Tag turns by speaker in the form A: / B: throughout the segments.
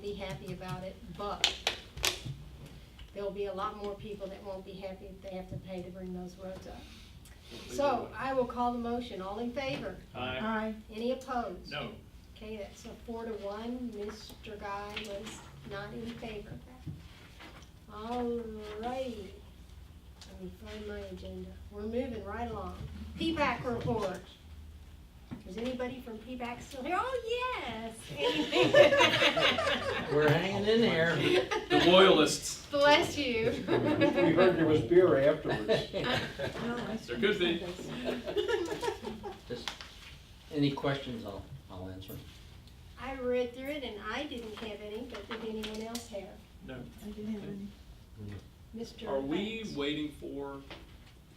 A: be happy about it, but there'll be a lot more people that won't be happy if they have to pay to bring those roads up. So I will call the motion. All in favor?
B: Aye.
C: Aye.
A: Any opposed?
B: Uh, No.
A: Okay, that's a four to one. Mr. Guy was not in favor. All righty. Let me find my agenda. We're moving right along. P-PAC report. Is anybody from P-PAC still here? Oh, yes. Anything?
D: We're hanging in there.
B: The loyalists.
A: Bless you.
E: We heard there was beer afterwards.
B: There could be.
D: Just, any questions, I'll, I'll answer.
A: I read through it and I didn't have any, but did anyone else have?
B: No.
C: I didn't have any.
A: Mr.
B: Are we
A: Banks?
B: waiting for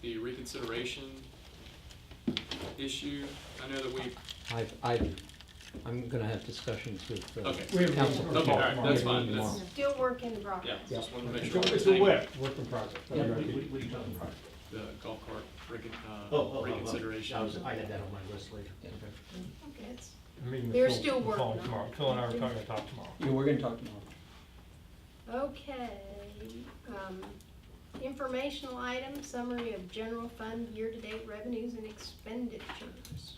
B: the reconsideration issue? I know that we,
D: I've, I've, I'm gonna have discussions with, uh,
B: Okay.
E: We have-
D: council.
E: Okay,
B: okay, all right,
D: tomorrow.
B: that's fine,
D: Yeah,
B: that's,
A: Still working the progress.
B: yeah, just wanted to make
E: It's
B: sure.
E: a- It's a whip, work in progress.
D: Yeah.
F: What are you talking about?
B: The golf cart recon,
F: Oh, oh, oh,
B: uh,
F: oh.
B: reconsideration.
F: I was, I had that on my list later.
D: Yeah.
F: Okay.
A: Okay, it's-
E: I'm meeting with
A: They're
E: Phil-
A: still
E: Phil
A: working on it.
E: tomorrow. Phil and I are talking to talk tomorrow.
D: Yeah, we're gonna talk tomorrow.
A: Okay, um, informational item, summary of general fund year-to-date revenues and expenditures.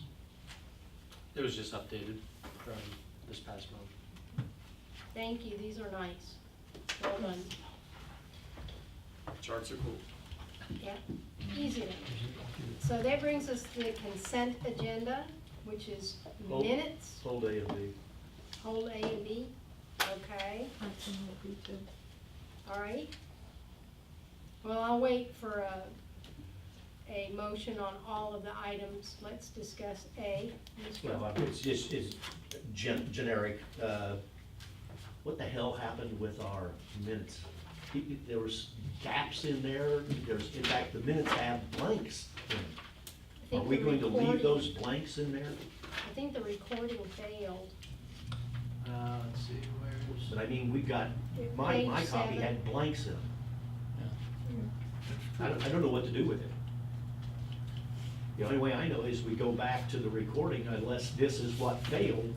F: It was just updated from this past month.
A: Thank you, these are nice. Well done,
B: Charts are cool.
A: yeah, easy enough. So that brings us to the consent agenda, which is
F: Hold.
A: minutes,
F: Full day of the.
A: hold A and B, okay,
C: That's in what we did.
A: all right? Well, I'll wait for a, a motion on all of the items, let's discuss A. Mr.
F: Well, it's just, it's gen- generic, uh, what the hell happened with our minutes? He- he- There was gaps in there, there's, in fact, the minutes have blanks. in them.
A: I
F: Are
A: think
F: we
A: the
F: going to leave
A: recording-
F: those blanks in there?
A: I think the recording failed.
F: Uh, let's see, where's? But I mean, we got,
A: It-
F: my,
A: page
F: my copy
A: seven.
F: had blanks in them. I don't, I
B: I
F: don't know what to do with it. The only way I know is we go back to the recording unless this is what failed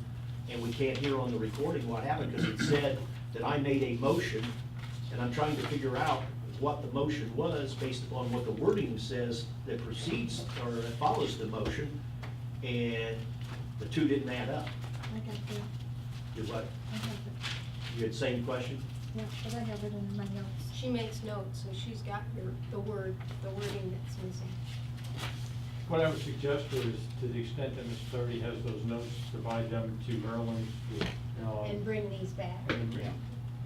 F: and we can't hear on the recording what happened because it said that I made a motion and I'm trying to figure out what the motion was based upon what the wording says that precedes or that follows the motion and the two didn't add up.
C: I got the,
F: You're what,
C: I have it,
F: you had same question?
C: yeah, but I have it in my notes.
A: She makes notes, so she's got your, the word, the wording that's missing.
E: What I would suggest is, to the extent that Mr. Doherty has those notes, provide them to Maryland. uh,
A: And bring these back.
E: And,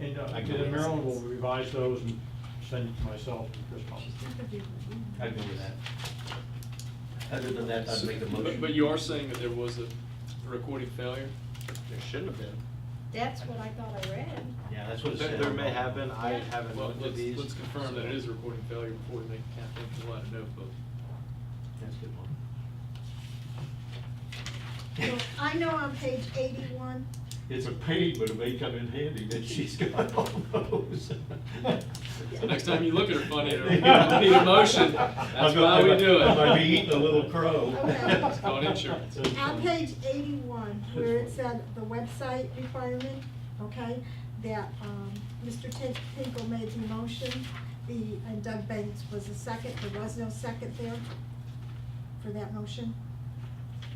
E: and uh,
F: I can-
E: then Maryland will revise those and send it to myself and Chris Paul.
C: She's gonna do it.
F: I'd go with that. Other than that, I'd make a
B: But,
F: motion.
B: but you are saying that there was a recording failure?
G: There shouldn't have been.
A: That's what I thought I read.
F: Yeah, that's what it
G: There,
F: said.
G: there may have been, I
A: Yeah.
G: haven't
B: Well,
G: looked at
B: let's,
G: these.
B: let's confirm that it is a recording failure before we make Kathleen fill out a notebook.
F: That's a good one.
C: Well, I know on page eighty-one,
F: It's a pain, but it may come in handy that she's got all those.
B: The next time you look at her funny, it'll-
E: it'll be
B: emotion. That's why we do it.
F: I'm gonna be eating a little crow.
C: Okay. It's
B: called insurance.
C: on page eighty-one, where it said the website requirement, okay, that, um, Mr. Tin- Tinkle made the motion, the, and Doug Bates was the second, there was no second there for that motion.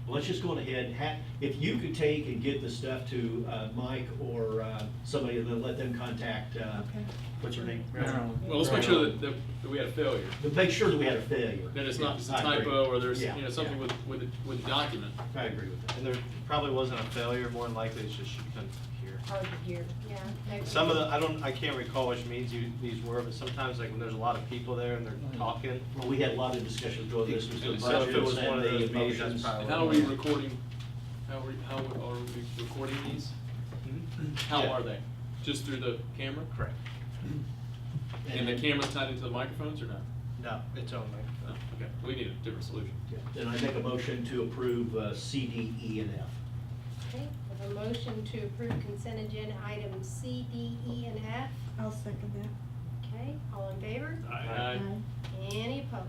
F: Let's just go ahead, and ha, if you could take and get the stuff to, uh, Mike or, uh, somebody, and then let them contact, uh,
C: Okay.
F: what's her name?
B: Well, let's make sure that, that that we had a failure,
F: But make sure that we had a failure.
B: that it's not just a
F: I agree.
B: typo or there's,
F: Yeah,
B: you know, something
F: yeah.
B: with, with, the- with the document.
F: I agree with that.
G: And there probably wasn't a failure, more than likely it's just you couldn't hear.
A: Hard to hear, yeah.
G: Some of the, I don't, I can't recall which meetings you, these were, but sometimes like when there's a lot of people there and they're talking.
F: Well, we had a lot of discussion during this, was the
G: So if it
F: budgets
G: was one
F: and
G: of
F: the
G: those meetings, that's
F: emotions.
G: probably
B: And how are we recording, how are, we- how are we recording these? How
G: Hmm? Yeah.
B: are they? Just through the camera?
G: Correct.
B: And the camera's tied into the microphones or not?
G: No, it's only.
B: No, okay, we need a different solution.
F: Yeah, Then I make a motion to approve uh, C, D, E, and F.
A: Okay, we have a motion to approve consent agenda items C, D, E, and F.
C: I'll second that.
A: Okay, all in favor?
B: Aye.
A: Any opposed?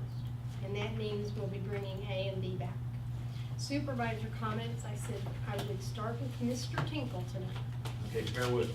A: And that means we'll be bringing A and B back. Supervisor comments, I said I would start with Mr. Tinkle tonight.
F: Okay, bear with me.